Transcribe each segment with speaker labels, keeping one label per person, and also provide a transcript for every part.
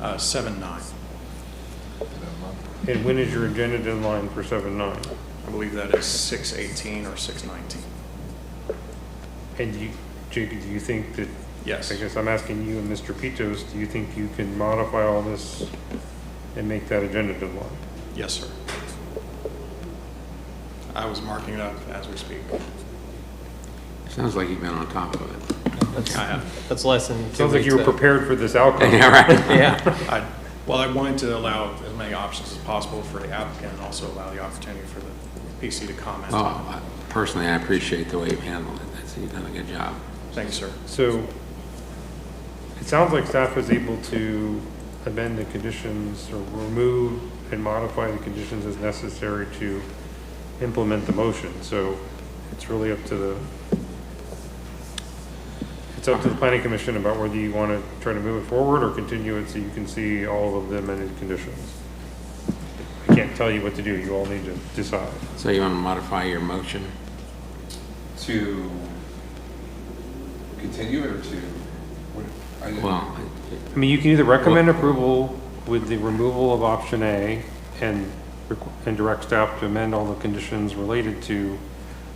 Speaker 1: uh, seven nine.
Speaker 2: And when is your agenda deadline for seven nine?
Speaker 1: I believe that is six eighteen or six nineteen.
Speaker 2: And you, Jacob, do you think that,
Speaker 1: Yes.
Speaker 2: I guess I'm asking you and Mr. Pitos, do you think you can modify all this and make that agenda deadline?
Speaker 1: Yes, sir. I was marking it up as we speak.
Speaker 3: Sounds like you've been on top of it.
Speaker 1: I have.
Speaker 4: That's less than two
Speaker 2: Sounds like you were
Speaker 4: weeks out.
Speaker 2: prepared for this outcome.
Speaker 3: Yeah, right.
Speaker 4: Yeah,
Speaker 1: I, well, I wanted to allow as many options as possible for the applicant and also allow the opportunity for the PC to comment.
Speaker 3: Well, I- personally, I appreciate the way you've handled it. That's, you've done a good job.
Speaker 1: Thank you, sir.
Speaker 2: So it sounds like staff was able to amend the conditions or remove and modify the conditions as necessary to implement the motion. So it's really up to the, it's up to the planning commission about whether you want to try to move it forward or continue it so you can see all of the amended conditions. I can't tell you what to do. You all need to decide.
Speaker 3: So you want to modify your motion?
Speaker 5: To continue or to, what, I didn't.
Speaker 3: Well,
Speaker 2: I mean, you can either recommend approval with the removal of option A and, requ- and direct staff to amend all the conditions related to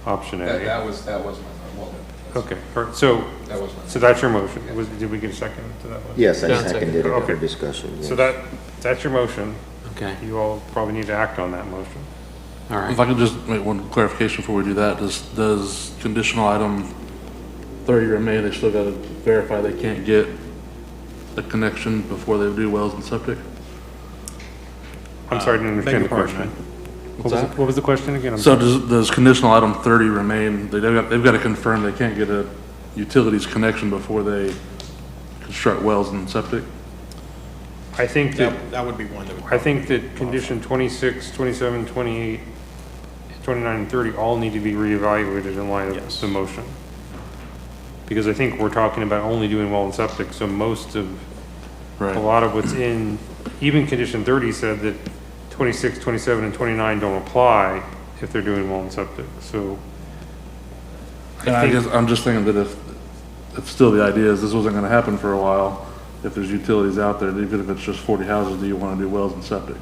Speaker 2: option
Speaker 5: That,
Speaker 2: A.
Speaker 5: that was, that was my, well, that's-
Speaker 2: Okay, all right, so,
Speaker 5: that was my.
Speaker 2: so that's your motion. Was, did we get a second to that one?
Speaker 6: Yes, I
Speaker 4: Done, second.
Speaker 6: seconded it
Speaker 2: Okay.
Speaker 6: for discussion.
Speaker 2: So
Speaker 6: yes.
Speaker 2: that, that's your motion.
Speaker 3: okay,
Speaker 2: You all probably need to act on that motion.
Speaker 3: all right.
Speaker 7: If I could just make one clarification before we do that, does, does conditional item thirty remain, they still gotta verify they can't get a connection before they do wells and septic?
Speaker 5: Uh,
Speaker 2: I'm sorry, I didn't
Speaker 1: beg
Speaker 2: understand the
Speaker 1: your pardon,
Speaker 2: question. What
Speaker 7: What's
Speaker 2: was, the-
Speaker 7: that?
Speaker 2: what was the question again? I'm
Speaker 7: So
Speaker 2: sorry.
Speaker 7: does, does conditional item thirty remain, they, they've got- they've gotta confirm they can't get a utilities connection before they construct wells and septic?
Speaker 2: I think that
Speaker 1: That, that would be one that would.
Speaker 2: I think that condition 26, 27, 28, 29, and 30 all need to be reevaluated in light of
Speaker 1: Yes.
Speaker 2: the motion. Because I think we're talking about only doing well and septic, so most of, a
Speaker 7: Right,
Speaker 2: lot of what's in, even condition 30 said that 26, 27, and 29 don't apply if they're doing well and septic, so.
Speaker 7: and I
Speaker 2: think-
Speaker 7: guess, I'm just thinking that if, if still the idea is this wasn't gonna happen for a while, if there's utilities out there, even if it's just forty houses, do you wanna do wells and septic?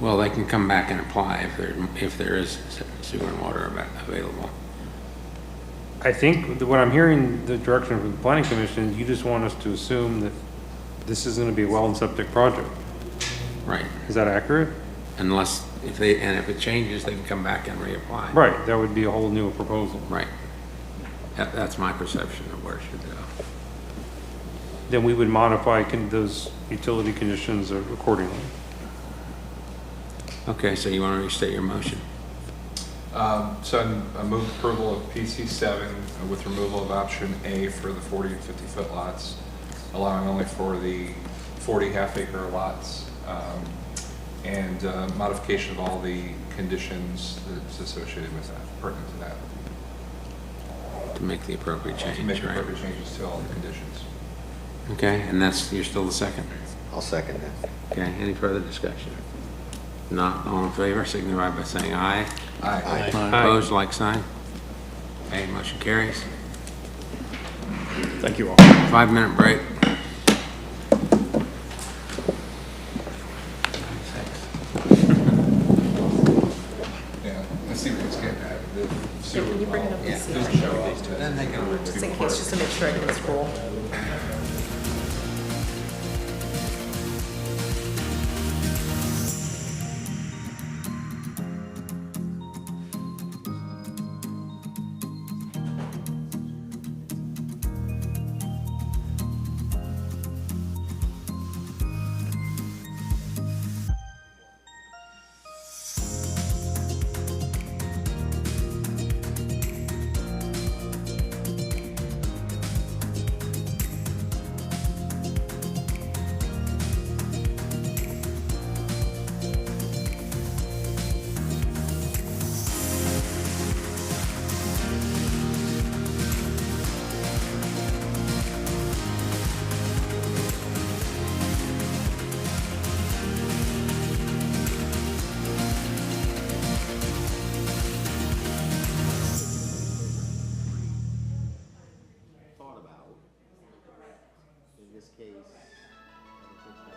Speaker 3: Well, they can come back and apply if there, if there is sewer and water ava- available.
Speaker 2: I think that what I'm hearing, the direction from the planning commission, is you just want us to assume that this is gonna be a well and septic project.
Speaker 3: Right,
Speaker 2: Is that accurate?
Speaker 3: unless, if they, and if it changes, they can come back and reapply.
Speaker 2: Right, that would be a whole new proposal.
Speaker 3: Right. That, that's my perception of where it should go.
Speaker 2: Then we would modify con- those utility conditions accordingly.
Speaker 3: Okay, so you want to restate your motion?
Speaker 5: Um, so I'm- I move approval of PC seven with removal of option A for the forty and fifty foot lots, allowing only for the forty half acre lots, um, and uh, modification of all the conditions that's associated with that, pertinent to that.
Speaker 3: To make the appropriate
Speaker 5: To
Speaker 3: change,
Speaker 5: make
Speaker 3: right?
Speaker 5: appropriate changes to all the conditions.
Speaker 3: Okay, and that's, you're still the second?
Speaker 6: I'll second that.
Speaker 3: Okay, any further discussion? Not all in favor, signify by saying aye.
Speaker 5: Aye.
Speaker 3: Opposed, like sign. Okay, motion carries.
Speaker 1: Thank you all.
Speaker 3: Five-minute break.
Speaker 5: Yeah, I see what he's getting at. The sewer
Speaker 8: Yeah, can you bring it up
Speaker 5: will-
Speaker 8: and see?
Speaker 5: doesn't show up.
Speaker 8: Just in case, just to make sure I can scroll.